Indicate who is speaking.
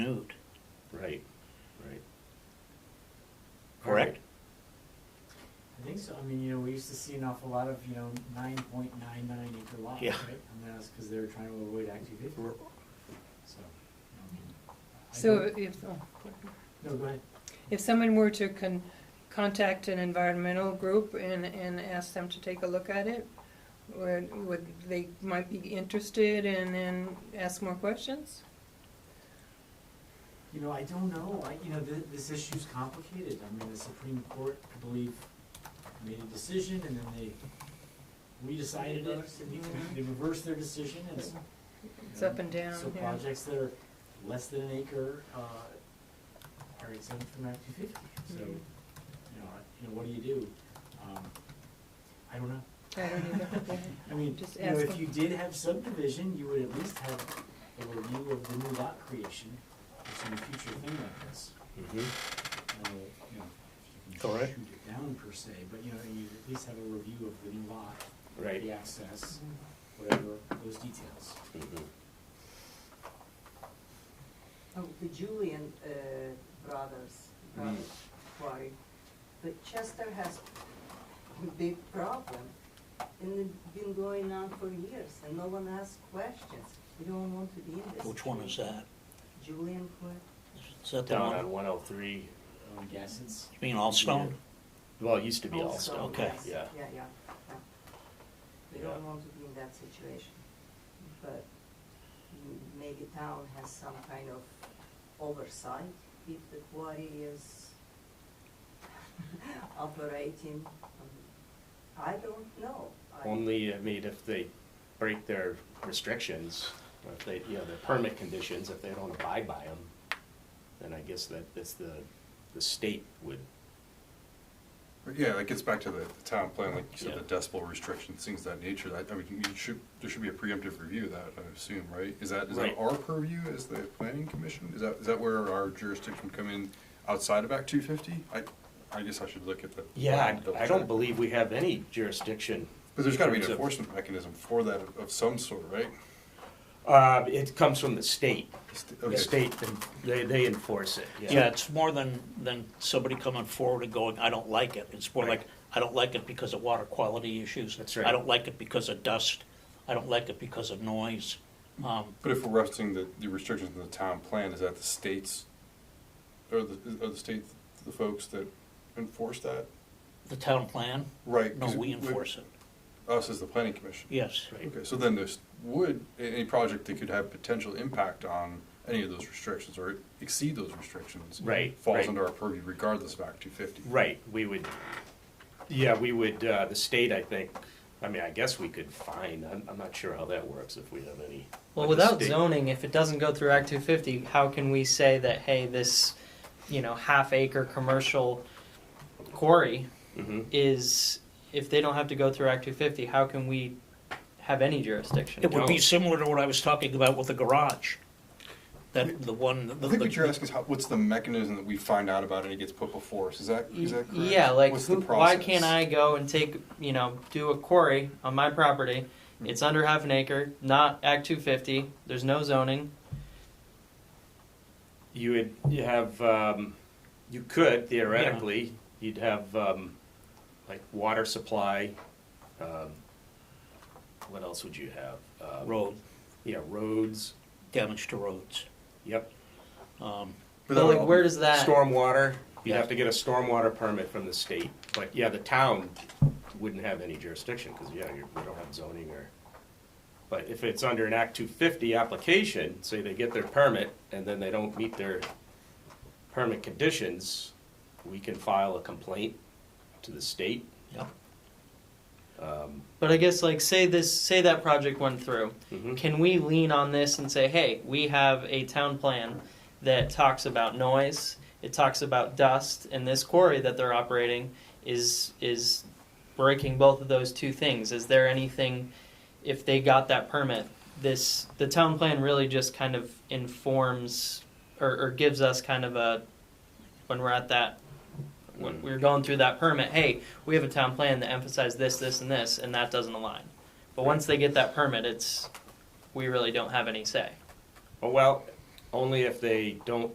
Speaker 1: Right, right. Correct?
Speaker 2: I think so, I mean, you know, we used to see an awful lot of, you know, nine point nine nine acre lots, right?
Speaker 1: Yeah.
Speaker 2: And that was because they were trying to avoid active fifty, so, I mean. I
Speaker 3: So
Speaker 2: don't-
Speaker 3: if, oh,
Speaker 2: No, go ahead.
Speaker 3: if someone were to con, contact an environmental group and, and ask them to take a look at it, would, would, they might be interested and then ask more questions?
Speaker 2: You know, I don't know, I, you know, thi- this issue's complicated, I mean, the Supreme Court, I believe, made a decision and then they redecided it,
Speaker 3: Reversed
Speaker 2: and
Speaker 3: it.
Speaker 2: they reversed their decision, and so.
Speaker 3: It's up and down,
Speaker 2: So
Speaker 3: yeah.
Speaker 2: projects that are less than an acre, uh, are exempt from Act two fifty, so, you
Speaker 3: Mhm.
Speaker 2: know, I- you know, what do you do? Um, I don't know,
Speaker 3: I don't even, okay.
Speaker 2: I mean,
Speaker 3: Just
Speaker 2: you know, if
Speaker 3: ask
Speaker 2: you
Speaker 3: them.
Speaker 2: did have subdivision, you would at least have a review of the new lot creation, or some future thing like this
Speaker 1: Mhm.
Speaker 2: uh, you know, you can
Speaker 1: Correct.
Speaker 2: shoot it down per se, but you know, you at least have a review of the new lot,
Speaker 1: Right.
Speaker 2: the access, whatever, those details.
Speaker 1: Mhm.
Speaker 4: Oh, the Julian uh, brothers, brothers
Speaker 5: Mm.
Speaker 4: quarry. But Chester has a big problem, and it's been going on for years, and no one asks questions. We don't want to be in this.
Speaker 5: Which one is that?
Speaker 4: Julian quarry.
Speaker 5: Is that the
Speaker 1: Down
Speaker 5: one,
Speaker 1: on
Speaker 5: you
Speaker 1: one oh three,
Speaker 2: I guess it's,
Speaker 5: mean Allstone?
Speaker 1: well, it used to be
Speaker 4: Also,
Speaker 1: Allstone,
Speaker 5: okay.
Speaker 4: yes.
Speaker 1: yeah.
Speaker 4: Yeah, yeah, yeah. We
Speaker 1: Yeah.
Speaker 4: don't want to be in that situation, but m- maybe town has some kind of oversight if the quarry is operating. Um, I don't know. I-
Speaker 1: Only, I mean, if they break their restrictions, or if they, you know, their permit conditions, if they don't abide by them, then I guess that, that's the, the state would,
Speaker 6: Yeah, that gets back to the, the town plan, like you said,
Speaker 1: Yeah.
Speaker 6: the decibel restrictions, things of that nature, that, I mean, you should, there should be a preemptive review of that, I assume, right? Is that, is
Speaker 1: Right.
Speaker 6: that our purview as the planning commission? Is that, is that where our jurisdiction come in outside of Act two fifty? I, I guess I should look at the.
Speaker 1: yeah,
Speaker 6: double
Speaker 1: I I don't
Speaker 6: check.
Speaker 1: believe we have any jurisdiction.
Speaker 6: But there's gotta be
Speaker 1: in
Speaker 6: an
Speaker 1: terms of-
Speaker 6: enforcement mechanism for that of- of some sort, right?
Speaker 1: Uh, it comes from the state.
Speaker 6: Okay.
Speaker 1: The state, they, they enforce it, yeah.
Speaker 5: Yeah, it's more than, than somebody coming forward and going, I don't like it. It's more
Speaker 1: Right.
Speaker 5: like, I don't like it because of water quality issues.
Speaker 1: That's right.
Speaker 5: I don't like it because of dust. I don't like it because of noise. Um,
Speaker 6: But if we're resting the, the restrictions in the town plan, is that the states, or the, are the state, the folks that enforce that?
Speaker 5: The town plan?
Speaker 6: Right.
Speaker 5: No,
Speaker 6: 'cause
Speaker 5: we enforce it,
Speaker 6: Us as the planning commission.
Speaker 5: yes.
Speaker 1: Right.
Speaker 6: Okay, so then this would, a- any project that could have potential impact on any of those restrictions or exceed those restrictions.
Speaker 1: Right, right.
Speaker 6: Falls under our purview regardless of Act two fifty.
Speaker 1: Right, we would, yeah, we would, uh, the state, I think, I mean, I guess we could find, I'm, I'm not sure how that works if we have any. like
Speaker 7: Well,
Speaker 1: a
Speaker 7: without
Speaker 1: state-
Speaker 7: zoning, if it doesn't go through Act two fifty, how can we say that, hey, this, you know, half acre commercial quarry
Speaker 1: Mhm.
Speaker 7: is, if they don't have to go through Act two fifty, how can we have any jurisdiction?
Speaker 5: It would be
Speaker 1: No.
Speaker 5: similar to what I was talking about with the garage. That, the one, the.
Speaker 6: I think
Speaker 5: the-
Speaker 6: what you're asking is how, what's the mechanism that we find out about and it gets put before us? Is that, is that correct?
Speaker 7: Yeah, like,
Speaker 6: What's the
Speaker 7: who, why
Speaker 6: process?
Speaker 7: can't I go and take, you know, do a quarry on my property? It's under half an acre, not Act two fifty, there's no zoning.
Speaker 1: You would, you have, um, you could theoretically, you'd have, um, like water supply, um, what else would you have? Uh,
Speaker 5: Road,
Speaker 1: Yeah, roads,
Speaker 5: damage to roads.
Speaker 1: yep,
Speaker 5: Um,
Speaker 6: But that
Speaker 7: But like,
Speaker 6: would-
Speaker 7: where does that?
Speaker 1: stormwater, you'd
Speaker 5: Yeah.
Speaker 1: have to get a stormwater permit from the state, but yeah, the town wouldn't have any jurisdiction, cause yeah, you, we don't have zoning or. But if it's under an Act two fifty application, say they get their permit and then they don't meet their permit conditions, we can file a complaint to the state.
Speaker 5: Yep.
Speaker 1: Um,
Speaker 7: But I guess like say this say that project went through.
Speaker 1: mhm.
Speaker 7: Can we lean on this and say, "Hey, we have a town plan that talks about noise, it talks about dust, and this quarry that they're operating is is breaking both of those two things. Is there anything if they got that permit, this the town plan really just kind of informs or, or gives us kind of a when we're at that when we're going through that permit, hey, we have a town plan that emphasized this, this, and this, and that doesn't align. But once they get that permit, it's, we really don't have any say.
Speaker 1: Oh, well, only if they don't